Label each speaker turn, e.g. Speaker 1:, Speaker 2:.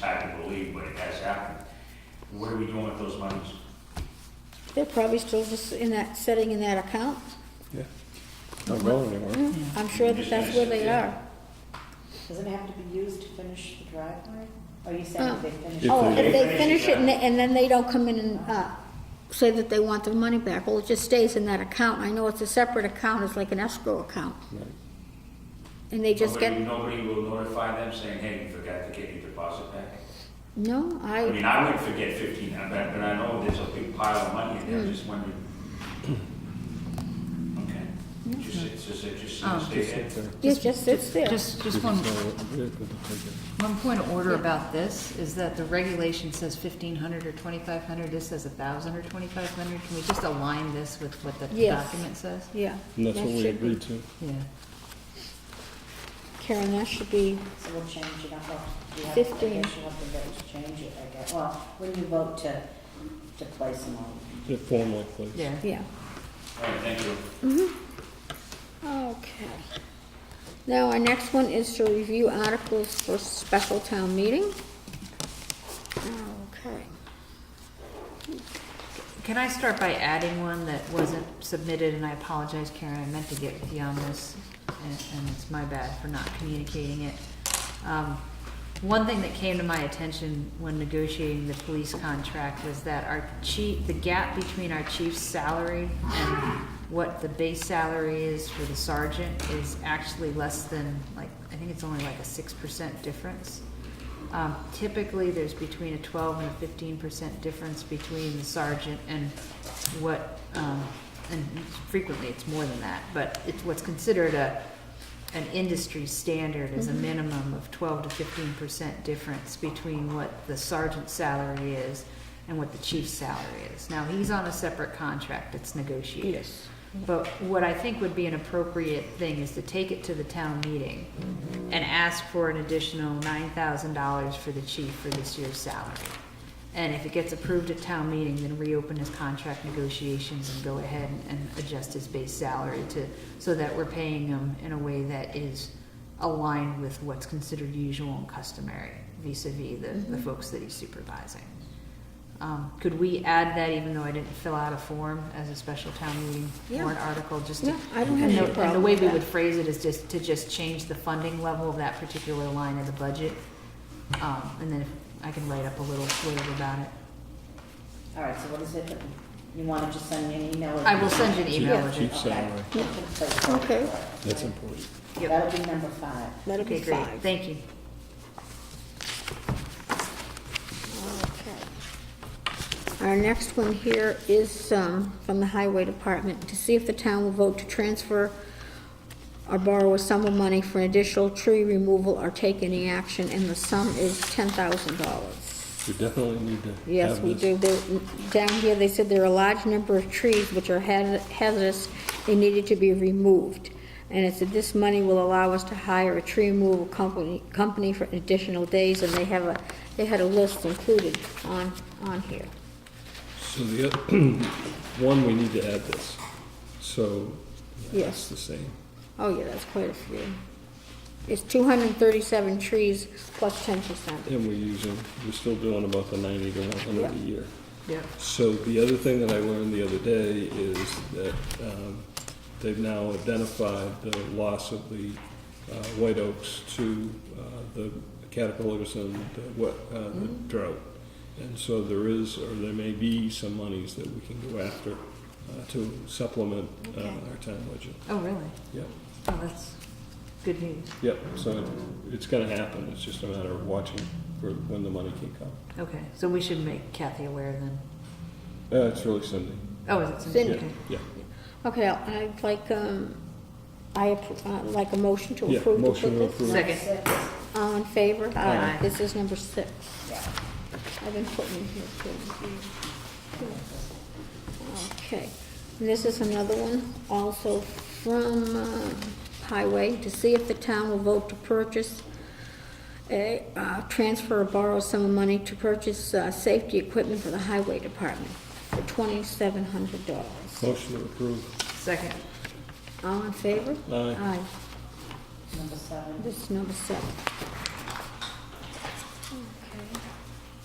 Speaker 1: hard to believe, but it has happened. What are we doing with those monies?
Speaker 2: They're probably still just in that, sitting in that account.
Speaker 3: Yeah, not going anywhere.
Speaker 2: I'm sure that that's where they are.
Speaker 4: Doesn't it have to be used to finish the driveway? Are you saying if they finish?
Speaker 3: If
Speaker 2: Oh,
Speaker 3: they-
Speaker 2: if they finish it and they- and then they don't come in and, uh, say that they want their money back, well, it just stays in that account. I know it's a separate account, it's like an escrow account. And they just
Speaker 1: Nobody-
Speaker 2: get,
Speaker 1: Nobody will notify them saying, hey, you forgot to get your deposit back?
Speaker 2: no,
Speaker 1: I
Speaker 2: I,
Speaker 1: mean, I wouldn't forget fifteen, I bet, but I know there's a big pile of money, and
Speaker 2: Hmm.
Speaker 1: I just wondered. Okay, just, it's just, it's just,
Speaker 5: Oh.
Speaker 1: it's just,
Speaker 2: it just sits there.
Speaker 5: Just, just one, one point of order about this is that the regulation says fifteen hundred or twenty-five hundred, this says a thousand or twenty-five hundred. Can we just align this with what the
Speaker 2: Yes.
Speaker 5: document says?
Speaker 2: Yeah.
Speaker 3: And that's
Speaker 2: that
Speaker 3: what we
Speaker 2: should be-
Speaker 3: agreed to.
Speaker 5: Yeah.
Speaker 2: Karen, that should be,
Speaker 4: So we'll change it up. We have- I guess
Speaker 2: Fifteen.
Speaker 4: You'll have to vote to change it, I guess. Well, when you vote to, to place them on.
Speaker 3: It formally, please.
Speaker 5: Yeah.
Speaker 2: yeah.
Speaker 1: all right, thank you.
Speaker 2: Okay. Now, our next one is to review articles for special town meeting. Okay.
Speaker 5: Can I start by adding one that wasn't submitted, and I apologize, Karen, I meant to get with you on this, and, and it's my bad for not communicating it. Um, one thing that came to my attention when negotiating the police contract was that our chief, the gap between our chief's salary and what the base salary is for the sergeant is actually less than, like, I think it's only like a six percent difference. Um, Typically, there's between a 12 and a 15 percent difference between the sergeant and what, um, and frequently it's more than that, but it's what's considered a, an industry standard is a minimum of 12 to 15 percent difference between what the sergeant's salary is and what the chief's salary is. Now, he's on a separate contract that's negotiated.
Speaker 2: Yes.
Speaker 5: But what I think would be an appropriate thing is to take it to the town meeting and ask for an additional nine thousand dollars for the chief for this year's salary. And if it gets approved at town meeting, then reopen his contract negotiations and go ahead and adjust his base salary to, so that we're paying him in a way that is aligned with what's considered usual and customary vis-à-vis
Speaker 2: Mm-hmm.
Speaker 5: the, the folks that he's supervising. Um, could we add that even though I didn't fill out a form as a special town meeting
Speaker 2: Yeah.
Speaker 5: warrant article, just to?
Speaker 2: No, I don't have any
Speaker 5: And the- And the
Speaker 2: problem
Speaker 5: way
Speaker 2: with
Speaker 5: we
Speaker 2: that.
Speaker 5: would phrase it is just to just change the funding level of that particular line of the budget. Um, and then I can write up a little blurb about it.
Speaker 4: All right, so what is it that you want to just send me an email? or-
Speaker 5: I will send you an email with
Speaker 3: Chief
Speaker 5: it.
Speaker 3: chief salary,
Speaker 4: Okay. To place them.
Speaker 2: Okay.
Speaker 3: that's important.
Speaker 5: Yep.
Speaker 4: That'll be number five.
Speaker 2: That'll be
Speaker 5: Okay, great.
Speaker 2: five.
Speaker 5: Thank you.
Speaker 2: Our next one here is um, from the Highway Department, to see if the town will vote to transfer or borrow a sum of money for additional tree removal or take any action, and the sum is $10,000.
Speaker 3: We definitely need to have this.
Speaker 2: Yes, we do. There- Down here, they said there are a large number of trees which are haz- hazardous and needed to be removed. And it said this money will allow us to hire a tree removal company, company for additional days, and they have a, they had a list included on, on here.
Speaker 3: So the, oth- one, we need to add this, so. yeah,
Speaker 2: Yes.
Speaker 3: It's the same.
Speaker 2: Oh, yeah, that's quite a few. It's 237 trees plus 10%.
Speaker 3: And we're using, we're still doing about the ninety to one hundred a
Speaker 2: Yeah.
Speaker 3: year.
Speaker 5: Yep.
Speaker 3: So the other thing that I learned the other day is that um, they've now identified the loss of the uh, white oaks to uh, the caterpillars and the wet- uh, the drought. And so there is, or there may be some monies that we can go after uh, to supplement uh,
Speaker 2: Okay.
Speaker 3: our town budget.
Speaker 5: Oh, really?
Speaker 3: Yep,
Speaker 5: Oh, that's good news.
Speaker 3: yep, so it's gonna happen, it's just a matter of watching for when the money can come.
Speaker 5: Okay, so we should make Kathy aware then.
Speaker 3: Uh, It's really Cindy.
Speaker 5: Oh, is it Cindy?
Speaker 2: Cindy.
Speaker 3: Yeah,
Speaker 5: Okay.
Speaker 3: yeah.
Speaker 2: Okay, I'd like, um, I, appro- uh, like a motion to
Speaker 3: Yeah,
Speaker 2: approve. to put
Speaker 3: motion to
Speaker 2: this-
Speaker 3: approve.
Speaker 5: Second.
Speaker 4: Six,
Speaker 2: All in favor?
Speaker 5: Aye.
Speaker 2: This is number six.
Speaker 4: yeah.
Speaker 2: I've been putting in here too. Okay, and this is another one, also from uh, Highway, to see if the town will vote to purchase a, uh, transfer or borrow some of money to purchase uh, safety equipment for the Highway Department for twenty-seven hundred dollars.
Speaker 3: Motion to approve.
Speaker 5: Second.
Speaker 2: All in favor?
Speaker 3: Aye.
Speaker 2: Aye.
Speaker 4: Number seven.
Speaker 2: This is number seven.